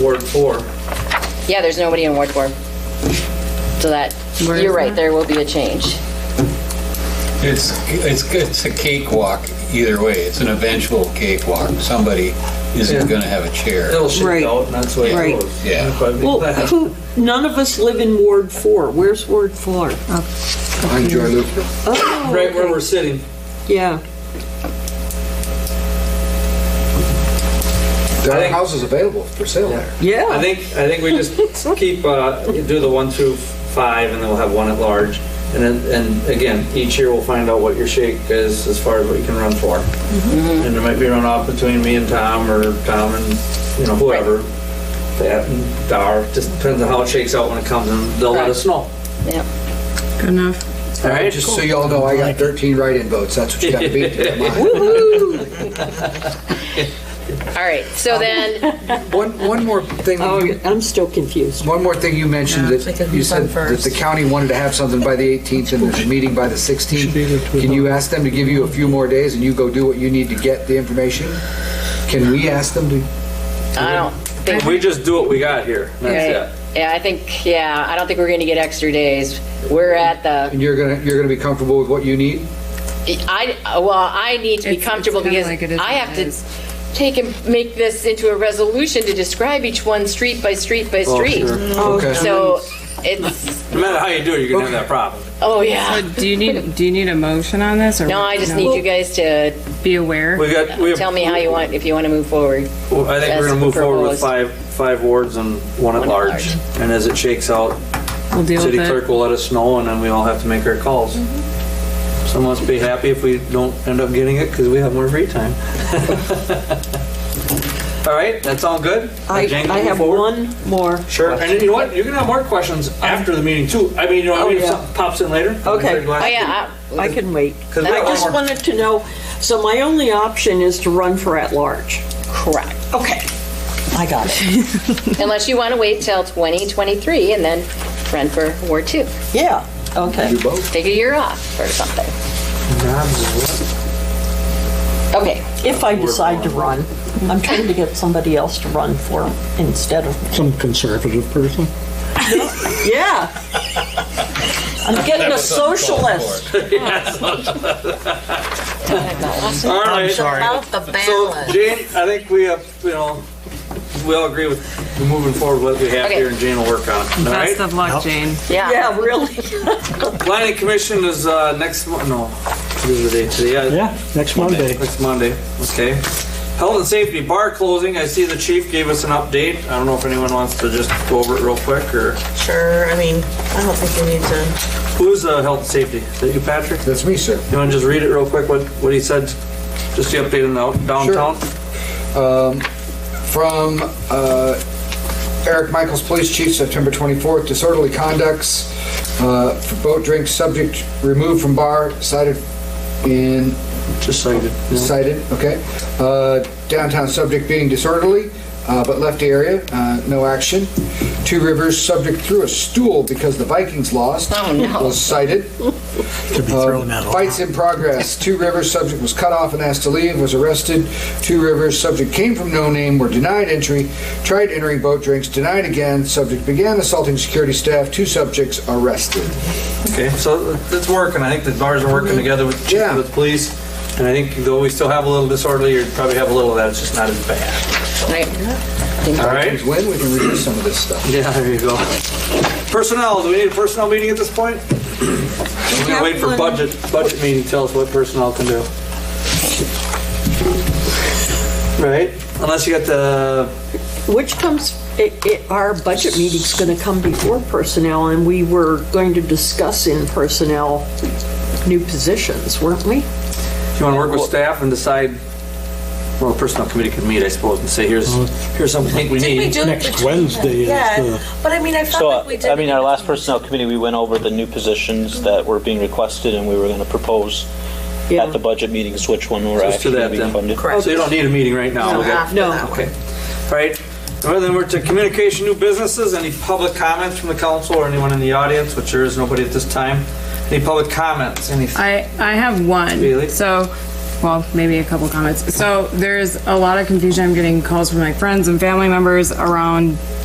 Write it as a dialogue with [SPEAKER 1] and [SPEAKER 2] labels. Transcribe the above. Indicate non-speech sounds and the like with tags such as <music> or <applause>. [SPEAKER 1] Ward four.
[SPEAKER 2] Yeah, there's nobody in Ward 4. So that,
[SPEAKER 3] Where
[SPEAKER 2] you're
[SPEAKER 3] is
[SPEAKER 2] right,
[SPEAKER 3] that?
[SPEAKER 2] there will be a change.
[SPEAKER 4] It's, it's, it's a cakewalk either way. It's an eventual cakewalk. Somebody
[SPEAKER 1] Yeah.
[SPEAKER 4] isn't going to have a chair.
[SPEAKER 1] It'll shake
[SPEAKER 3] Right.
[SPEAKER 1] out, and that's the way
[SPEAKER 3] Right.
[SPEAKER 1] it goes.
[SPEAKER 4] Yeah.
[SPEAKER 1] <laughs> That's what I mean.
[SPEAKER 3] Well, who, none of us live in Ward 4. Where's Ward 4?
[SPEAKER 5] I'm Joy Luker.
[SPEAKER 3] Oh,
[SPEAKER 1] Right where
[SPEAKER 3] okay.
[SPEAKER 1] we're sitting.
[SPEAKER 3] Yeah,
[SPEAKER 5] There
[SPEAKER 1] I
[SPEAKER 5] are
[SPEAKER 1] think-
[SPEAKER 5] houses available for sale there.
[SPEAKER 1] I
[SPEAKER 3] yeah.
[SPEAKER 1] think, I think we
[SPEAKER 3] <laughs>
[SPEAKER 1] just keep, uh, do the one through five, and then we'll have one at large. And then, and again, each year we'll find out what your shake is as far as what you can run for.
[SPEAKER 3] Mm-hmm.
[SPEAKER 1] And there might be a runoff between me and Tom, or Tom and, you know, whoever. That, and Dar, just depends on how it shakes out when it comes, and they'll let us know.
[SPEAKER 2] Yep.
[SPEAKER 3] Good enough.
[SPEAKER 1] All right?
[SPEAKER 5] Just so y'all know, I got 13 write-in votes. That's what you got to beat to get mine.
[SPEAKER 2] All right, so then,
[SPEAKER 5] One, one more thing,
[SPEAKER 3] Oh,
[SPEAKER 5] you-
[SPEAKER 3] I'm still confused.
[SPEAKER 5] one more thing you mentioned
[SPEAKER 6] Yeah, they
[SPEAKER 5] that
[SPEAKER 6] can
[SPEAKER 5] you
[SPEAKER 6] move on
[SPEAKER 5] said that
[SPEAKER 6] first.
[SPEAKER 5] the county wanted to have something by the 18th and there's a meeting by the 16th. Can you ask them to give you a few more days and you go do what you need to get the information? Can we ask them to?
[SPEAKER 2] <laughs> I
[SPEAKER 6] um,
[SPEAKER 2] don't think,
[SPEAKER 1] We just do what we got here.
[SPEAKER 2] yeah,
[SPEAKER 1] That's
[SPEAKER 2] I think, yeah, I don't think we're going to get extra days. We're at the,
[SPEAKER 5] And you're gonna, you're gonna be comfortable with what you need?
[SPEAKER 2] I, well, I need to be
[SPEAKER 6] It's- it's
[SPEAKER 2] comfortable
[SPEAKER 6] kinda
[SPEAKER 2] because
[SPEAKER 6] like it is
[SPEAKER 2] I
[SPEAKER 6] what
[SPEAKER 2] have
[SPEAKER 6] it
[SPEAKER 2] to
[SPEAKER 6] is.
[SPEAKER 2] take and make this into a resolution to describe each one street by street by
[SPEAKER 1] Oh,
[SPEAKER 2] street.
[SPEAKER 1] sure.
[SPEAKER 5] Okay.
[SPEAKER 2] So it's,
[SPEAKER 1] it. No matter how you do it, you're gonna have that problem.
[SPEAKER 2] oh, yeah.
[SPEAKER 6] So do you need, do you need a motion on this? or-
[SPEAKER 2] No, I just need you guys to
[SPEAKER 6] Be aware.
[SPEAKER 1] We got, we have.
[SPEAKER 2] tell me how you want, if you want to move forward.
[SPEAKER 1] Well, I think we're
[SPEAKER 2] as
[SPEAKER 1] gonna move forward with five,
[SPEAKER 2] proposed.
[SPEAKER 1] five wards and one at
[SPEAKER 2] One at
[SPEAKER 1] large.
[SPEAKER 2] large.
[SPEAKER 1] And as it shakes out,
[SPEAKER 6] We'll deal with
[SPEAKER 1] city
[SPEAKER 6] it.
[SPEAKER 1] clerk will let us know and then we all have to make our calls.
[SPEAKER 3] Mm-hmm.
[SPEAKER 1] Some of us be happy if we don't end up getting it because we have more free time. <laughs> All right, that's all good?
[SPEAKER 3] I,
[SPEAKER 1] Jane,
[SPEAKER 3] I
[SPEAKER 1] move
[SPEAKER 3] have
[SPEAKER 1] forward?
[SPEAKER 3] one more.
[SPEAKER 1] Sure, and you know what? You can have more questions after the meeting too. I mean, you know, what I
[SPEAKER 3] Oh,
[SPEAKER 1] mean, if
[SPEAKER 3] yeah.
[SPEAKER 1] something pops in later. I'm
[SPEAKER 3] Okay.
[SPEAKER 1] very glad
[SPEAKER 2] Oh,
[SPEAKER 1] to-
[SPEAKER 2] yeah,
[SPEAKER 3] I can wait.
[SPEAKER 1] 'Cause we
[SPEAKER 3] I
[SPEAKER 1] have
[SPEAKER 3] just
[SPEAKER 1] one more.
[SPEAKER 3] wanted to know, so my only option is to run for at-large.
[SPEAKER 2] I- correct.
[SPEAKER 3] Okay, I got it.
[SPEAKER 2] Unless you want to wait till 2023 and then run for War Two.
[SPEAKER 3] Yeah, okay.
[SPEAKER 5] Do both?
[SPEAKER 2] Take a year off or something. Okay,
[SPEAKER 3] If I decide to run, I'm trying to get somebody else to run for instead of
[SPEAKER 7] some conservative person.
[SPEAKER 3] Yeah. I'm getting a socialist.
[SPEAKER 1] All right. So Jane, I think we have, you know, we all agree with moving forward with what we have
[SPEAKER 2] Okay.
[SPEAKER 1] here and Jane will work on it. All right?
[SPEAKER 6] Best of luck, Jane.
[SPEAKER 2] yeah.
[SPEAKER 3] Yeah, really.
[SPEAKER 1] Planning Commission is uh, next, Mon- no, this is the day today, yeah.
[SPEAKER 7] Yeah, next Monday.
[SPEAKER 1] Next Monday, okay. Health and Safety Bar closing, I see the chief gave us an update. I don't know if anyone wants to just go over it real quick, or
[SPEAKER 8] Sure, I mean, I don't think we need to,
[SPEAKER 1] who's uh, Health and Safety? Is that you, Patrick?
[SPEAKER 5] That's me, sir.
[SPEAKER 1] You want to just read it real quick, what, what he said? Just the update in the downtown?
[SPEAKER 5] from uh, Eric Michaels, Police Chief, September 24th, disorderly conducts uh, for boat drinks, subject removed from bar, cited in
[SPEAKER 1] Just so you could-
[SPEAKER 5] cited, okay. Uh, Downtown subject being disorderly, uh, but left area, uh, no action. Two Rivers subject threw a stool because the Vikings lost.
[SPEAKER 2] Oh, no.
[SPEAKER 5] Was cited. Uh, Fights in progress. Two Rivers subject was cut off and asked to leave, was arrested. Two Rivers subject came from no name, were denied entry, tried entering boat drinks, denied again. Subject began assaulting security staff. Two subjects arrested.
[SPEAKER 1] Okay, so uh, it's working. I think the bars are working together with,
[SPEAKER 5] Yeah.
[SPEAKER 1] with police. And I think though we still have a little disorderly, you probably have a little of that, it's just not as bad.
[SPEAKER 2] Right.
[SPEAKER 1] All right?
[SPEAKER 5] Vikings win, we can reduce some of this stuff.
[SPEAKER 1] Yeah, there you go. Personnel, do we need a personnel meeting at this point? We're gonna wait for budget, budget meeting to tell us what personnel can do. Right? Unless you got the,
[SPEAKER 3] Which comes, it, it, our budget meeting's gonna come before personnel, and we were going to discuss in personnel new positions, weren't we?
[SPEAKER 1] if you wanna work with staff and decide, well, personnel committee can meet, I suppose, and say, here's, here's something we
[SPEAKER 8] did we
[SPEAKER 1] need.
[SPEAKER 8] do?
[SPEAKER 7] Next Wednesday is
[SPEAKER 8] Yeah,
[SPEAKER 7] the-
[SPEAKER 8] but I mean, I felt
[SPEAKER 9] So,
[SPEAKER 8] like we did.
[SPEAKER 9] I mean, our last personnel committee, we went over the new positions that were being requested, and we were going to propose
[SPEAKER 3] Yeah.
[SPEAKER 9] at the budget meetings which one were
[SPEAKER 1] Let's do
[SPEAKER 9] actually
[SPEAKER 1] that
[SPEAKER 9] being
[SPEAKER 1] then.
[SPEAKER 9] funded.
[SPEAKER 1] So you don't need a meeting right now. We got-
[SPEAKER 3] No.
[SPEAKER 1] Okay. All right. Well, then we're to communication, new businesses. Any public comments from the council or anyone in the audience, which there is nobody at this time? Any public comments? Any?
[SPEAKER 6] I, I have one.
[SPEAKER 1] Really?
[SPEAKER 6] So well, maybe a couple comments. So there's a lot of confusion. I'm getting calls from my friends and family members around